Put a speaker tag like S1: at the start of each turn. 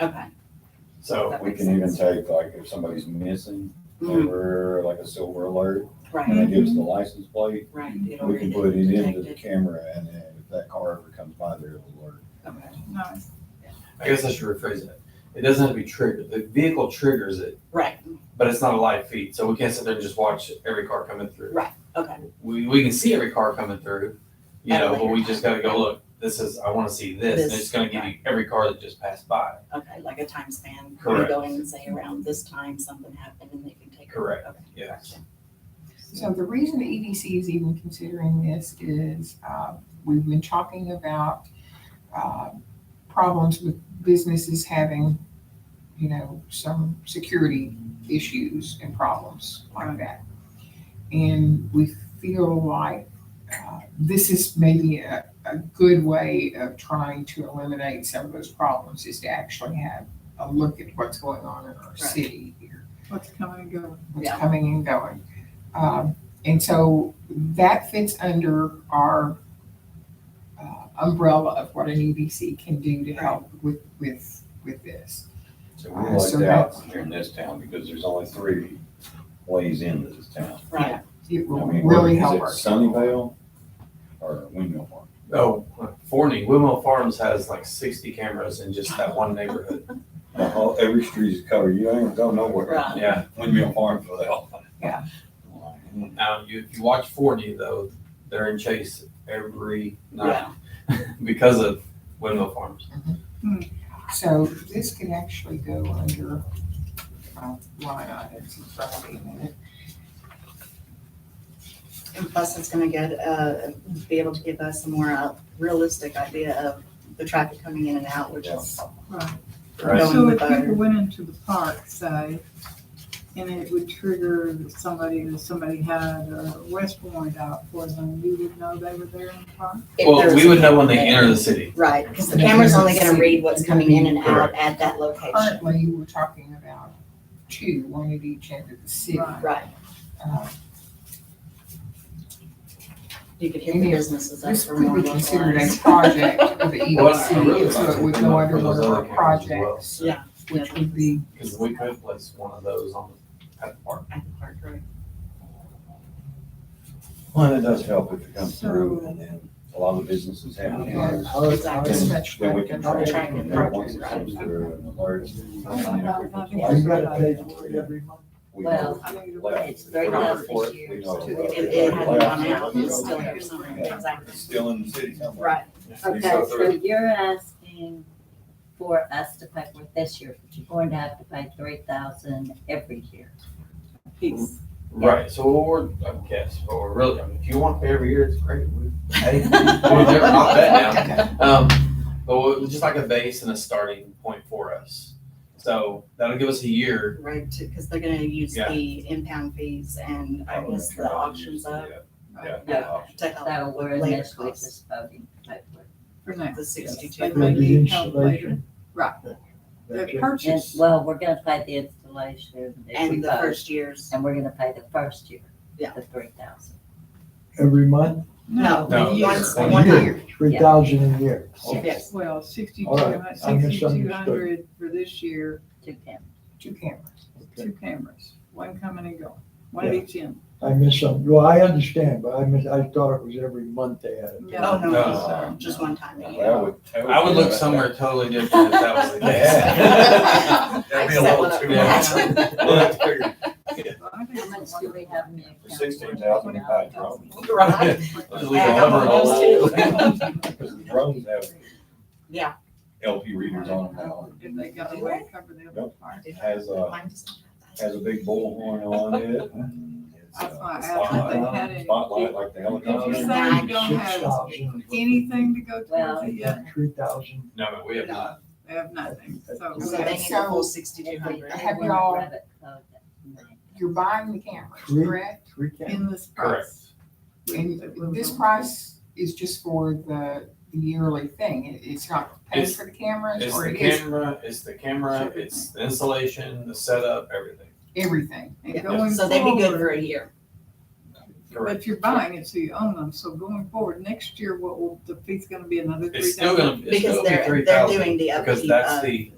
S1: Okay.
S2: So,
S1: That
S3: We
S1: makes
S3: can even
S1: sense.
S3: take, like, if somebody's missing,
S1: Mm,
S3: or like a silver alert, and
S1: Right,
S3: they give us the license plate,
S1: right. It'll
S3: we can
S1: read it,
S3: put it into
S1: detect
S3: the
S1: it.
S3: camera, and then if that car ever comes by, there, it'll alert.
S1: Okay.
S4: Nice.
S2: I guess I should rephrase that. It doesn't have to be triggered. The vehicle triggers it,
S1: Right,
S2: but it's not a live feed, so we can't sit there and just watch every car coming through.
S1: right, okay,
S2: We, we can see every car coming through, you
S1: At a
S2: know, but
S1: later
S2: we just gotta go, look, this is, I wanna see this, and
S1: This,
S2: it's gonna give you every car that just passed by.
S1: okay, like a time span. You
S2: Correct.
S1: Go in and say around this time something happened and they can take. it.
S2: Correct,
S1: Okay,
S2: yes.
S1: gotcha.
S4: So the reason the EDC is even considering this is, uh, we've been talking about, uh, problems with businesses having, you know, some security issues and problems like that. And we feel like, uh, this is maybe a, a good way of trying to eliminate some of those problems is to actually have a look at what's going on in our
S1: Right.
S4: city here
S5: What's coming and going?
S4: what's
S1: Yeah.
S4: coming and going. Um, and so that fits under our uh, umbrella of what an EDC can do to help with, with, with this.
S3: So
S4: Uh,
S3: we're
S4: so
S3: like
S4: that's-
S3: out here in this town, because there's only three ways into this town.
S1: Right,
S4: It
S3: I
S4: will
S3: mean,
S4: really
S3: is
S4: help
S3: it
S4: our.
S3: Sunnyvale or Windmill Park?
S2: Oh, Forney, Wilmot Farms has like sixty cameras in just that one neighborhood.
S3: The whole, every street is covered, you ain't going nowhere.
S1: right,
S2: Yeah,
S3: Windmill Farm for the hell.
S4: Yeah.
S2: um, you, if you watch Forney though, they're in Chase every night
S1: yeah,
S2: because of Windmill Farms.
S4: So this could actually go under uh, line items in front of me in a minute.
S1: and plus it's gonna get, uh, be able to give us a more uh, realistic idea of the traffic coming in and out, which is
S5: Right.
S2: Right.
S1: Going
S5: So
S1: with
S5: if
S1: our-
S5: people went into the park, say, and it would trigger somebody, that somebody had a arrest warrant out for them, you would know they were there in the park?
S1: if
S2: Well,
S1: there's-
S2: we would know when they enter the city.
S1: Right, because the camera's only gonna read what's coming in and out
S2: Correct.
S1: at that location.
S4: Currently, we're talking about two, one at each end of the city.
S5: Right.
S1: Right,
S4: Uh,
S1: you could hit the businesses, that's
S4: This
S1: for
S4: could
S1: more
S4: be
S1: localized.
S4: considered a project of the
S2: Well, I really
S4: EDC, so
S2: like
S4: it would
S2: to
S4: go
S2: know for
S4: under one
S2: those
S4: of
S2: other
S4: our
S2: cameras as well.
S4: projects,
S1: Yeah.
S4: which would be,
S2: Because we could place one of those on at the park.
S1: At the park, right.
S3: Well, that does help if it comes through, and then a lot of the businesses have it.
S4: Yeah.
S1: Exactly.
S3: Then then we can track it,
S1: Tracking
S3: and then once it
S1: project,
S3: comes through and alerts. and,
S5: Oh,
S3: you know, we can
S5: Yeah.
S3: place it.
S6: every month.
S3: We
S1: Well,
S3: know
S5: I mean,
S3: left.
S1: it's very
S3: We know
S1: less this
S3: report,
S1: year,
S3: we know
S1: so
S3: left,
S1: It, it hadn't
S3: left,
S1: gone out,
S3: you
S1: it's
S3: know,
S1: still here somewhere,
S3: Yeah.
S1: exactly.
S3: it's Still in the city somewhere.
S1: Right,
S3: You
S7: Okay,
S3: go
S7: so
S3: through.
S7: you're asking for us to pay for this year, but you're going to have to pay three thousand every year.
S1: peace.
S2: Right, so what we're, I guess, but we're really, I mean, if you want to pay every year, it's great. We- Hey, we're never not that now. Um, but we'll- just like a base and a starting point for us. So that'll give us a year.
S1: Right, because they're gonna use
S2: Yeah. Oh,
S1: the impound fees and I guess the auctions of,
S3: Yeah,
S1: Yeah.
S3: yeah, options.
S1: to help
S7: So we're
S1: Later
S7: initially
S1: costs.
S7: just voting to pay for it.
S5: for now,
S1: the
S5: they
S1: sixty-two.
S5: may need help later.
S6: installation.
S5: Right,
S6: That
S5: the
S6: can-
S7: And,
S5: purchase,
S7: well, we're gonna pay the installation if we
S1: And the
S7: vote,
S1: first years,
S7: and we're gonna pay the first year,
S1: Yeah.
S7: the three thousand.
S6: Every month,
S1: no,
S2: No,
S1: once,
S2: year.
S1: one
S6: One year.
S1: year,
S6: three thousand a year.
S1: yes,
S5: well, sixty-two,
S6: All right, I misunderstood.
S5: sixty-two hundred for this year,
S7: Two cameras.
S4: two cameras.
S6: Okay.
S5: two cameras, one coming and going, one at
S6: Yeah.
S5: each end.
S6: I miss some, well, I understand, but I miss, I thought it was every month they had it.
S1: oh, no,
S2: No.
S1: no, just one time a year.
S3: That would totally-
S2: I would look somewhere totally different if that was the case.
S3: That'd be
S1: I
S3: a
S1: set
S3: little
S1: one up
S3: too
S1: for
S2: much.
S1: that.
S3: Well, that's figured.
S5: I think
S7: How much
S5: it's
S7: do we have in the
S3: For
S7: account?
S3: sixteen thousand, you buy a drone.
S1: Right,
S2: Just leave a
S1: Yeah,
S2: hover
S1: those
S2: hole.
S1: two.
S3: Because the drones have
S1: Yeah.
S3: LP readers on them now.
S5: If they got away, cover the other part.
S3: It has a, has a big bullhorn on it. and it's uh,
S5: That's
S3: a
S5: why I asked if they
S3: Spotlight,
S5: had any,
S3: spotlight like the
S5: you're
S3: helicopter.
S5: saying you don't
S6: Six
S5: have
S6: thousand.
S5: anything to go
S7: Well,
S5: towards it yet,
S6: Three thousand.
S2: No, we have not.
S5: they have nothing, so.
S1: So they need the
S4: So-
S1: full
S7: If we
S1: sixty-two hundred.
S7: pay
S4: Have
S7: one
S4: y'all-
S7: private code, that's nine.
S4: You're buying the cameras,
S6: Three.
S4: correct?
S6: Three thousand.
S5: in this
S2: Correct.
S5: price.
S4: And this price is just for the the yearly thing. It- It's not paying
S2: It's-
S4: for the cameras
S2: It's
S4: or
S2: the
S4: it is
S2: camera, it's the camera, it's the installation, the setup, everything.
S4: everything.
S5: And going
S1: So they'd be good
S5: forward,
S1: for a year.
S2: Correct.
S5: But you're buying it, so you own them, so going forward, next year, what will, the fee's gonna be another three thousand?
S2: It's still gonna, it's
S1: Because
S2: still gonna be
S1: they're,
S2: three
S1: they're
S2: thousand.
S1: doing E, uh, the upkeep
S2: Because that's
S1: of-
S2: the,